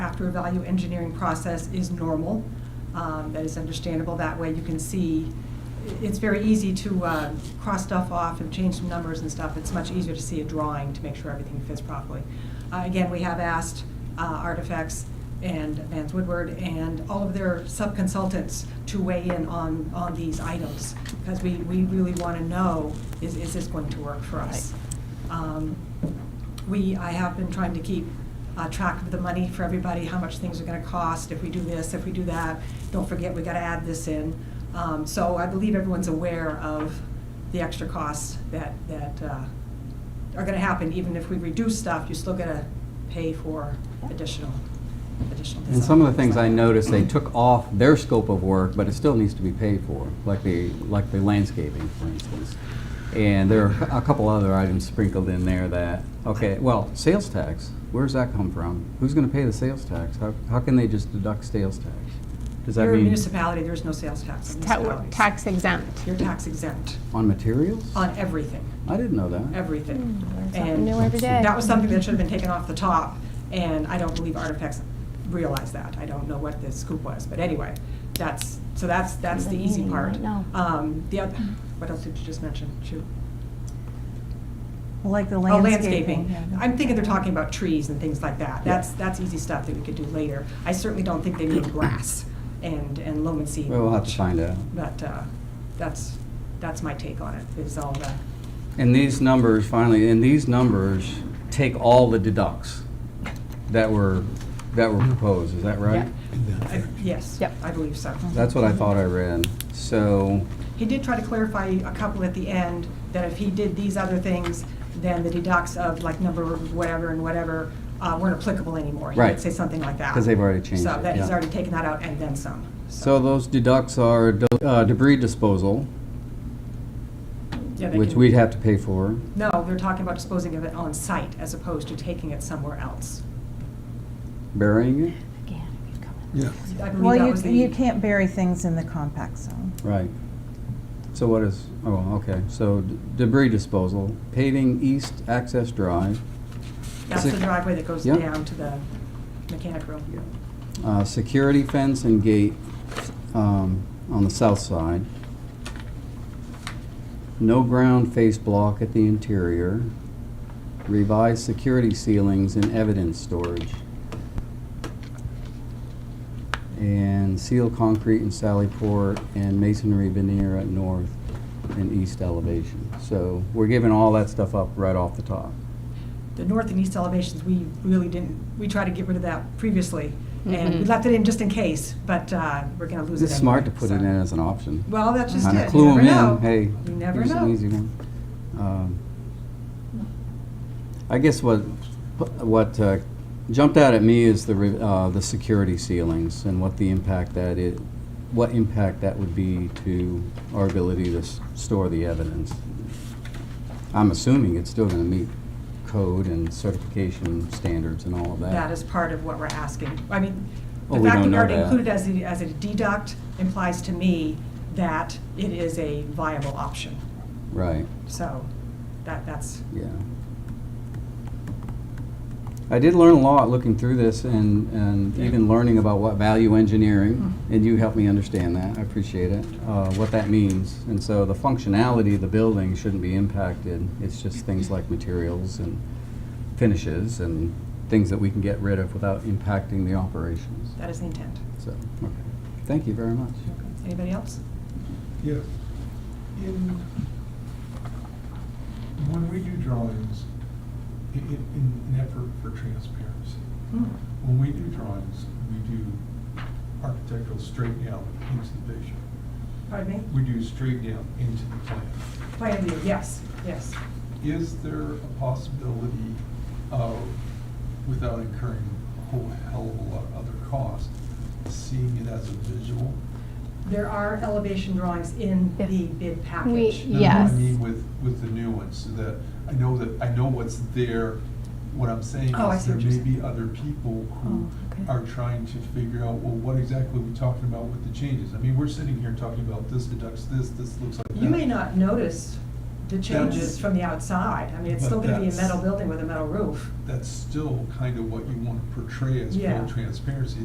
through a value engineering process is normal. Um, That is understandable. That way you can see, it's very easy to uh, cross stuff off and change some numbers and stuff. It's much easier to see a drawing to make sure everything fits properly. Uh, Again, we have asked uh, Artifacts and Vance Woodward and all of their sub-consultants to weigh in on, on these items. Because we, we really want to know, is, is this going to work for us? Um, We, I have been trying to keep uh, track of the money for everybody, how much things are gonna cost, if we do this, if we do that. Don't forget, we gotta add this in. Um, So I believe everyone's aware of the extra costs that, that uh, are gonna happen. Even if we reduce stuff, you're still gonna pay for additional, additional design. And some of the things I noticed, they took off their scope of work, but it still needs to be paid for, like the, like the landscaping, for instance. And there are a couple other items sprinkled in there that, okay, well, sales tax, where's that come from? Who's gonna pay the sales tax? How, how can they just deduct sales tax? Does that You're a mean municipality, there's no sales tax on Ta- we're municipalities. Tax exempt. You're tax exempt on materials? on everything, I didn't know that. everything. Learn And Mm, Something new every day. That was something that should have been taken off the top, and I don't believe Artifacts realized that. I don't know what the scoop was, but anyway, that's, so that's, that's the easy part. No. Um, the other, what else did you just mention? Shoot. Like the Oh, landscaping. yeah. I'm thinking they're talking about trees and things like that. That's, that's easy stuff that we could do later. I certainly don't think they need grass and, and loam and seed. Well, We'll have to mulch. find out. But uh, that's, that's my take on it, is all the, And these numbers, finally, and these numbers take all the deducts that were, that were proposed, is that right? I- yes, Yep. I believe so. That's what I thought I read. So, He did try to clarify a couple at the end, that if he did these other things, then the deducts of like number of whatever and whatever uh, weren't applicable anymore. He did Right. say something like that. 'Cause they've already changed So it, that he's yeah. already taken that out and then some. so those deducts are de- uh, debris disposal, Yeah, they which can- we'd have to pay for. No, they're talking about disposing of it on site as opposed to taking it somewhere else. Burying it? Again, if you come in. Yeah. I believe that Well, was the. you, you can't bury things in the compact zone. Right. So what is, oh, okay, so d- debris disposal, paving east access drive, That's the driveway that goes Yeah. down to the mechanic room. uh, security fence and gate um, on the south side, no ground face block at the interior, revised security ceilings and evidence storage, and seal concrete in Sallyport and masonry veneer at north and east elevation. So we're giving all that stuff up right off the top. The north and east elevations, we really didn't, we tried to get rid of that previously. And we Mhm. left it in just in case, but uh, we're going to lose it It's smart to anyway, put it so. in as an option. Well, that's just Kind it. of clue you them never know. in, hey. You never here's an know. easy one. Um, I guess what, what uh, jumped out at me is the, re- uh, the security ceilings and what the impact that it, what impact that would be to our ability to s- store the evidence. I'm assuming it's still gonna meet code and certification standards and all of that. That is part of what we're asking. I mean, Oh, the we fact that don't we know already that. included as a, as a deduct implies to me that it is a viable option. Right. So that, that's, Yeah. I did learn a lot looking through this and, and even learning about what value engineering, and you helped me understand that, I appreciate it, uh, what that means. And so the functionality of the building shouldn't be impacted, it's just things like materials and finishes and things that we can get rid of without impacting the operations. that is the intent. So, okay, thank you very much. Anybody else? Yeah. In, when we do drawings, i- i- in an effort for transparency, Hmm. when we do drawings, we do architectural straight down into the vision. Pardon me? We do straight down into the plan. Plan view, yes, yes. Is there a possibility of, without incurring a whole hell of a lot of other cost, seeing it as a visual? There are elevation drawings in Yeah. the bid We- package. No, no, Yes. I mean with, with the new ones, so that I know that, I know what's there. What I'm saying Oh, I is see there what you're may saying. be other people who Oh, okay. are trying to figure out, well, what exactly are we talking about with the changes? I mean, we're sitting here talking about this deducts this, this looks like that. You may not notice to change it from the outside. I mean, it's still gonna be a metal building with a metal roof. That's still kind of what you want to portray as Yeah. full transparency.